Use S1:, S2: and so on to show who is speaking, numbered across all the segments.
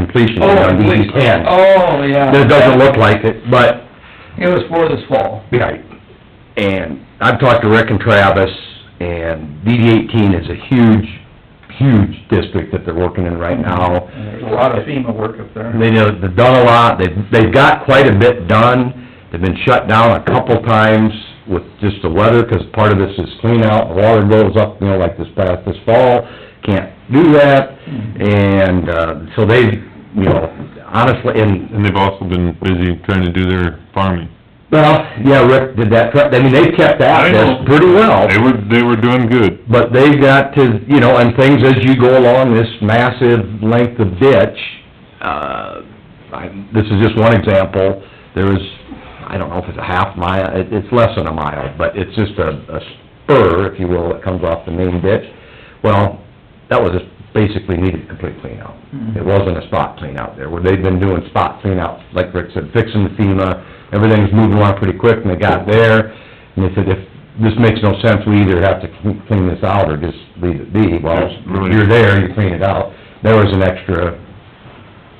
S1: completion
S2: Oh,
S1: date on DD
S2: please.
S1: ten.
S2: Oh, yeah.
S1: It doesn't look like it, but,
S2: It was for this fall.
S1: right. And I've talked to Rick and Travis, and DD eighteen is a huge, huge district that they're working in right now.
S2: And there's a lot of FEMA work up there.
S1: They know, they've done a lot, they've, they've got quite a bit done, they've been shut down a couple times with just the weather, 'cause part of this is clean out, water goes up, you know, like this past, this fall, can't do that,
S2: Mm-hmm.
S1: and, uh, so they, you know, honestly, and
S3: And they've also been busy trying to do their farming.
S1: Well, yeah, Rick did that, correct. I mean, they've kept
S3: I
S1: at
S3: know.
S1: this pretty well,
S3: They were, they were doing good.
S1: but they've got to, you know, and things as you go along this massive length of ditch, uh, I, this is just one example, there is, I don't know if it's a half mile, it, it's less than a mile, but it's just a, a spur, if you will, that comes off the main ditch. Well, that was just basically needed a complete clean out. It wasn't a spot clean out there, where they've been doing spot clean outs, like Rick said, fixing the FEMA, everything's moving along pretty quick, and they got there, and they said, if, this makes no sense, we either have to clean- clean this out or just leave it be, well,
S3: Yes, really.
S1: you're there, you clean it out. There was an extra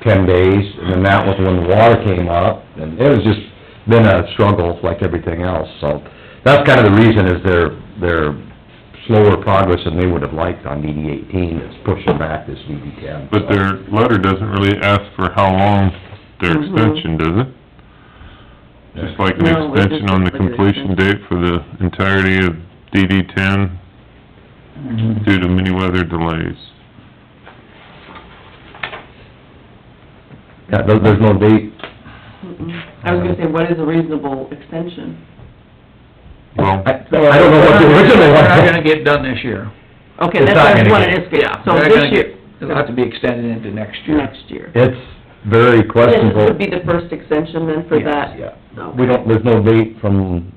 S1: ten days, and then that was when the water came up, and it was just been a struggle like everything else, so. That's kind of the reason is their, their slower progress than they would have liked on DD eighteen, is pushing back this DD ten.
S3: But their letter doesn't really ask for how long their extension, does it? Just like an
S4: No, it
S3: extension on the
S4: doesn't put an
S3: completion date for the entirety of DD ten
S2: Mhm.
S3: due to many weather delays.
S1: Yeah, there, there's no date,
S4: I was gonna say, what is a reasonable extension?
S3: Well,
S1: I, I don't know what the original
S2: We're not gonna
S1: was.
S2: get done this year.
S4: Okay,
S1: It's
S4: that's
S1: not
S4: what I
S1: gonna
S4: wanted
S1: get-
S4: to ask, so
S2: We're not
S4: this
S2: gonna
S4: year,
S2: get- It'll have to be extended into next year.
S4: next year.
S1: It's very
S4: This
S1: questionable.
S4: would be the first extension then for
S2: Yes,
S4: that?
S1: Yeah.
S4: Okay.
S1: We don't, there's no date from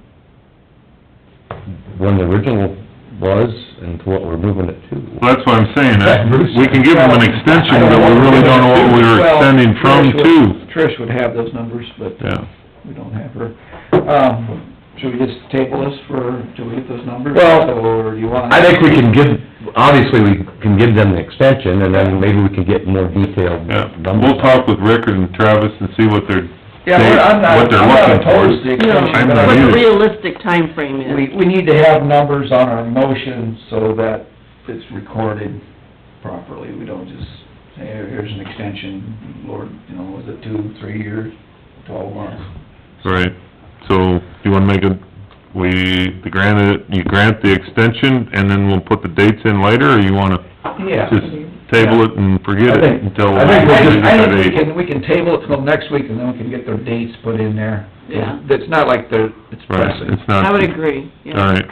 S1: when the original was and to what we're moving it to.
S3: that's what I'm saying,
S1: Yeah,
S3: I-
S1: Bruce.
S3: we can give them an extension, but we really don't know what we were
S2: Well,
S3: extending from
S2: Trish would-
S3: to.
S2: Trish would have those numbers, but
S3: Yeah.
S2: we don't have her. Um, should we just table this for, till we get those numbers?
S1: Well,
S2: Or do you wanna?
S1: I think we can give, obviously, we can give them the extension and then maybe we can get more detailed
S3: Yeah,
S1: numbers.
S3: we'll talk with Rick and Travis and see what they're,
S2: Yeah, we're- I'm not,
S3: what they're
S2: I'm not
S3: looking for.
S2: opposed to the extension,
S3: I'm
S2: but
S3: not
S4: What
S2: I-
S4: the
S3: either.
S4: realistic timeframe
S2: we,
S4: is.
S2: we need to have numbers on our motion so that it's recorded properly. We don't just say, "Here- here's an extension, Lord, you know, was it two, three years, twelve months?
S3: right, so you wanna make a, we, the granted, you grant the extension and then we'll put the dates in later, or you wanna
S2: Yeah.
S3: just table it and forget
S1: I
S3: it
S1: think-
S3: until?
S1: I think
S2: I
S1: we'll
S2: think,
S1: just-
S2: I think we can, we can table it till next week and then we can get their dates put in there.
S4: Yeah.
S2: It's not like they're, it's
S3: Right,
S2: pressing.
S3: it's not.
S4: I would agree, yeah.
S3: Alright,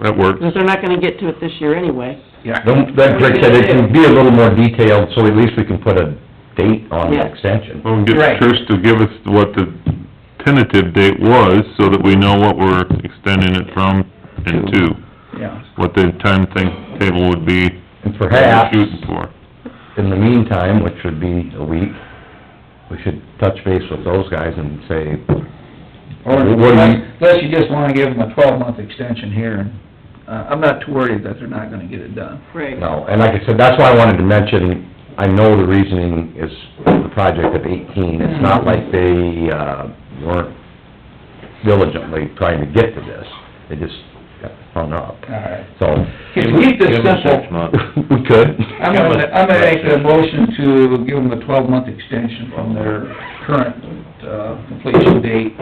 S3: that works.
S4: Because they're not gonna get to it this year anyway.
S2: Yeah.
S1: Then, then Rick said it can be a little more detailed, so at least we can put a date on the
S4: Yeah.
S1: extension.
S3: We'll get
S2: Right.
S3: Trish to give us what the tentative date was, so that we know what we're extending it from and to,
S2: Yeah.
S3: what the time thing, table would be
S1: And
S3: we're
S1: perhaps,
S3: Mm-hmm. shooting for.
S1: in the meantime, which would be a week, we should touch base with those guys and say,
S2: Or
S1: What do you-
S2: unless unless you just wanna give them a twelve-month extension here, and, uh, I'm not too worried that they're not gonna get it done.
S4: Right.
S1: No, and like I said, that's why I wanted to mention, I know the reasoning is the project of eighteen, it's not like they, uh, weren't diligently trying to get to this, they just got hung up,
S2: Alright.
S1: so.
S2: Can we keep this
S1: Give them
S2: simple?
S1: six months. We could.
S2: I'm gonna, I'm gonna make a motion to give them a twelve-month extension from their current, uh, completion date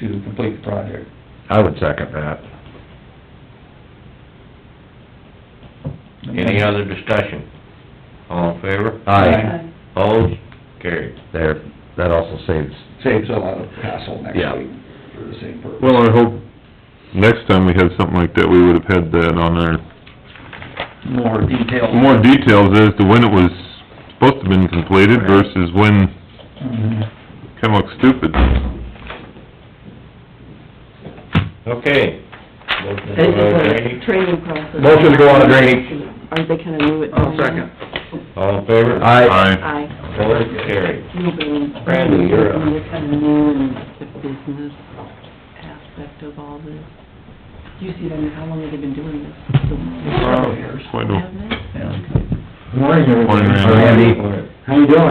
S2: to complete the project.
S1: I would second that.
S5: Any other discussion? All in favor?
S1: Aye,
S5: Opposed? Carried.
S1: there, that also saves,
S2: Saves a lot of hassle next
S1: Yeah.
S2: week for the same purpose.
S3: Well, I hope next time we had something like that, we would've had that on our,
S2: More detail.
S3: more details as to when it was supposed to have been completed versus when,
S2: Mhm.
S3: kinda looks stupid.
S5: Okay. Motion to go
S4: They just
S5: to
S4: want
S5: drainage.
S4: a training process.
S1: Motion to go on a drainage.
S4: Aren't they kinda new at doing
S2: I'll
S4: that?
S2: second.
S5: All in favor?
S1: aye,
S3: Aye.
S4: Aye.
S5: Opposed? Carried.
S4: Brandon,
S5: Brandy, you're up.
S4: They're kinda new in the business aspect of all this. You see them, how long have they been doing this?
S2: Several years.
S3: Why don't-
S4: Haven't they?
S2: Yeah.
S6: Morning, everybody.
S3: Morning, Randy.
S1: Randy.
S6: How you doing?